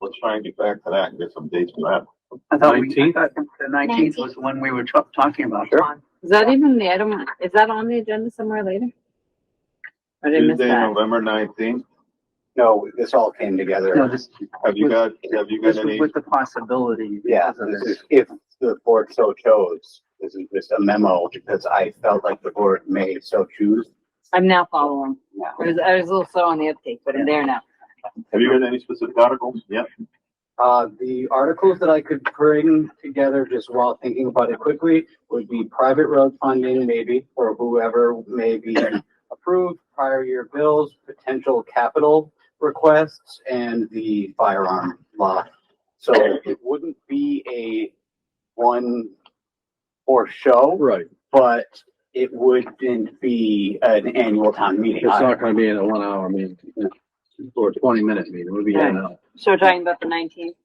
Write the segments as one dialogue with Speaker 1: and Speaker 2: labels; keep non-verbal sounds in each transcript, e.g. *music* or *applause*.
Speaker 1: let's try and get back to that and get some dates for that.
Speaker 2: I thought we, I
Speaker 3: 19th?
Speaker 2: thought the nineteenth was the one we were tra- talking about.
Speaker 4: Is that even the item, is that on the agenda somewhere later? I didn't miss
Speaker 1: Tuesday,
Speaker 4: that.
Speaker 1: November nineteenth.
Speaker 5: No, this all came
Speaker 2: No,
Speaker 5: together.
Speaker 2: this,
Speaker 1: Have you got, have you
Speaker 2: this
Speaker 1: got
Speaker 2: was
Speaker 1: any,
Speaker 2: with the possibility
Speaker 5: Yeah,
Speaker 2: because of
Speaker 5: this
Speaker 2: this.
Speaker 5: is, if the board so chose, this is just a memo because I felt like the board may so choose.
Speaker 4: I'm now following.
Speaker 5: Yeah.
Speaker 4: I was, I was a little slow on the uptake, but I'm there now.
Speaker 1: have you got any specific articles? Yep.
Speaker 5: Uh, the articles that I could bring together just while thinking about it quickly would be private road funding maybe, or whoever may be approved, prior year bills, potential capital requests, and the firearm law. So it wouldn't be a one for show,
Speaker 3: Right.
Speaker 5: but it wouldn't be an annual town meeting.
Speaker 3: It's not gonna be in a one hour meeting or a twenty minute meeting. It'll be in an hour.
Speaker 4: So we're talking about the nineteenth.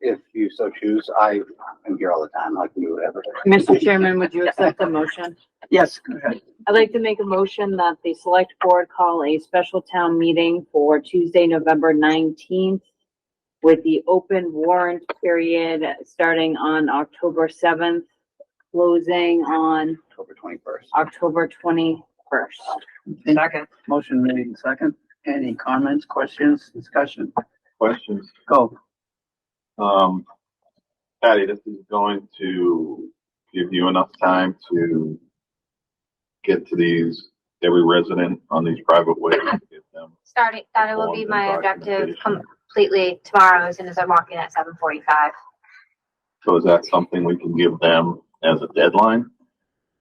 Speaker 5: If you so choose, I am here all the time, I can do whatever.
Speaker 4: Mr. Chairman, would you accept the motion?
Speaker 2: Yes, go ahead.
Speaker 4: I'd like to make a motion that the select board call a special town meeting for Tuesday, November nineteenth with the open warrant period starting on October seventh, closing on
Speaker 5: October twenty-first.
Speaker 4: October twenty-first.
Speaker 2: Second. Motion made in second. Any comments, questions, discussion?
Speaker 1: Questions?
Speaker 2: Go.
Speaker 1: Um, Patty, this is going to give you enough time to get to these, every resident on these private ways, get them.
Speaker 6: starting, that will be
Speaker 1: Forms and
Speaker 6: my objective Um,
Speaker 1: documentation.
Speaker 6: completely tomorrow as soon as I walk in at seven forty-five.
Speaker 1: So is that something we can give them as a deadline?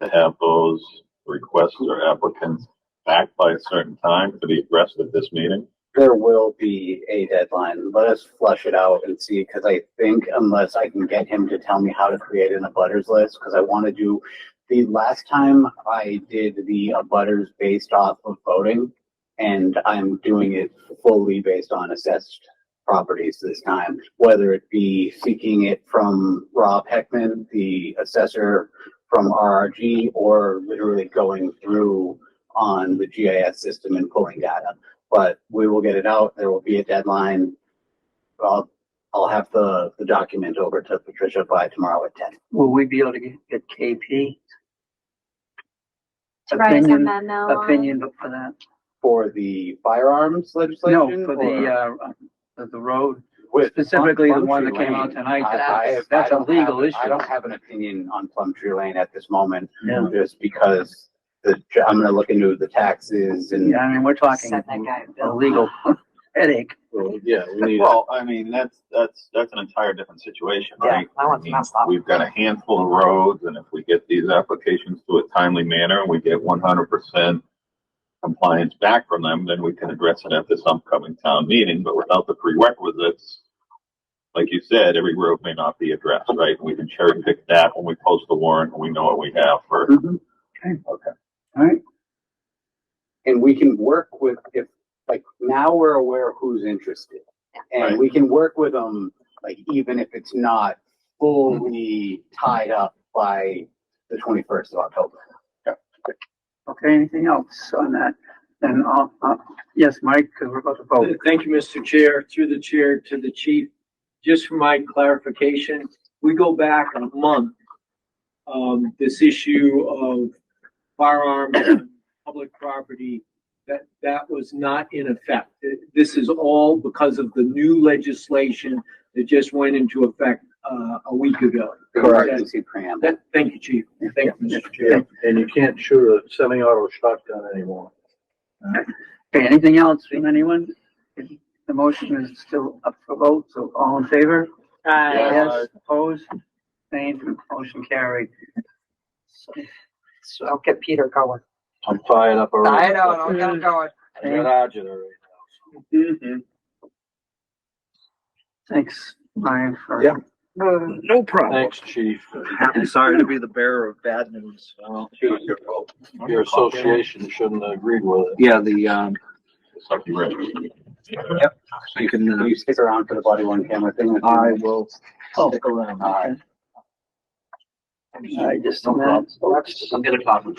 Speaker 1: To have those requests or applicants back by a certain time for the rest of this meeting?
Speaker 5: There will be a deadline. Let us flush it out and see, because I think unless I can get him to tell me how to create an abutters list, because I want to do, the last time I did the abutters based off of voting, and I'm doing it fully based on assessed properties this time, whether it be seeking it from Rob Heckman, the assessor from RRG, or literally going through on the GIS system and pulling data but we will get it out. There will be a deadline. I'll, I'll have the, the document over to Patricia by tomorrow at ten.
Speaker 2: Will we be able to get- get KP
Speaker 6: To write us a
Speaker 2: Opinion-
Speaker 6: memo
Speaker 4: Uh,
Speaker 6: on,
Speaker 2: opinion for that?
Speaker 5: For the firearms legislation?
Speaker 2: No, for
Speaker 5: or-
Speaker 2: the, uh, for the road.
Speaker 5: with-
Speaker 2: specifically the one
Speaker 5: Plumtree
Speaker 2: that came out
Speaker 5: Lane.
Speaker 2: tonight,
Speaker 5: I-
Speaker 2: that's-
Speaker 5: I-
Speaker 2: that's
Speaker 5: I
Speaker 2: a
Speaker 5: don't have-
Speaker 2: legal
Speaker 5: I
Speaker 2: issue.
Speaker 5: don't have an opinion on Plumtree Lane at this moment,
Speaker 2: Yeah.
Speaker 5: just because the, I'm gonna look into the taxes and.
Speaker 2: Yeah, I mean, we're talking
Speaker 4: Send that guy a
Speaker 2: a
Speaker 4: bill.
Speaker 2: legal *laughs* headache.
Speaker 3: yeah, we need.
Speaker 1: Well, I mean, that's, that's, that's an entire different situation, right?
Speaker 4: Yeah, that
Speaker 1: I
Speaker 4: one's
Speaker 1: mean,
Speaker 4: messed up.
Speaker 1: We've got a handful of roads, and if we get these applications to a timely manner, and we get one hundred percent compliance back from them, then we can address it at this upcoming town meeting, but without the prerequisites, like you said, every road may not be addressed, right? We can cherry pick that when we post the warrant, and we know what we have for,
Speaker 2: Mhm. All right,
Speaker 5: and we can work with if like now we're aware of who's interested and
Speaker 1: Right.
Speaker 5: we can work with them like even if it's not fully
Speaker 7: Mm-hmm.
Speaker 5: tied up by the 21st of october
Speaker 2: okay, anything else on that? Then, uh, uh, yes, Mike, 'cause we're about to vote.
Speaker 7: Oh, Thank you, Mr. Chair, through the chair to the chief. Just for my clarification, we go back a month. Um, this issue of firearms and public property, that, that was not in effect. This is all because of the new legislation that just went into effect, uh, a week ago.
Speaker 5: emergency preamble
Speaker 7: That- thank you, chief. Thank you, Mr. Chair.
Speaker 3: Yeah, and you can't shoot a semi-auto shotgun anymore.
Speaker 2: Okay, anything else from anyone? The motion is still up for vote, so all in favor?
Speaker 4: Uh,
Speaker 2: Yes, opposed, abstained, motion carried.
Speaker 8: So I'll get Peter going.
Speaker 3: I'm fired up already.
Speaker 8: I know, I'll get him going.
Speaker 3: I got agita already.
Speaker 2: Thanks, Ryan, for.
Speaker 3: Yeah.
Speaker 8: No problem.
Speaker 3: Thanks, chief.
Speaker 7: I'm sorry to be the bearer of bad news.
Speaker 3: Your association shouldn't have agreed with it.
Speaker 7: Yeah, the, um,
Speaker 1: it's up to you, Rich.
Speaker 7: you can, uh,
Speaker 5: Will you stick around for the body one camera thing
Speaker 7: will stick around.
Speaker 5: all right
Speaker 2: I just don't know.
Speaker 8: I'm gonna pop him.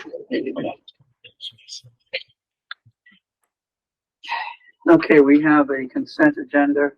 Speaker 2: Okay, we have a consent agenda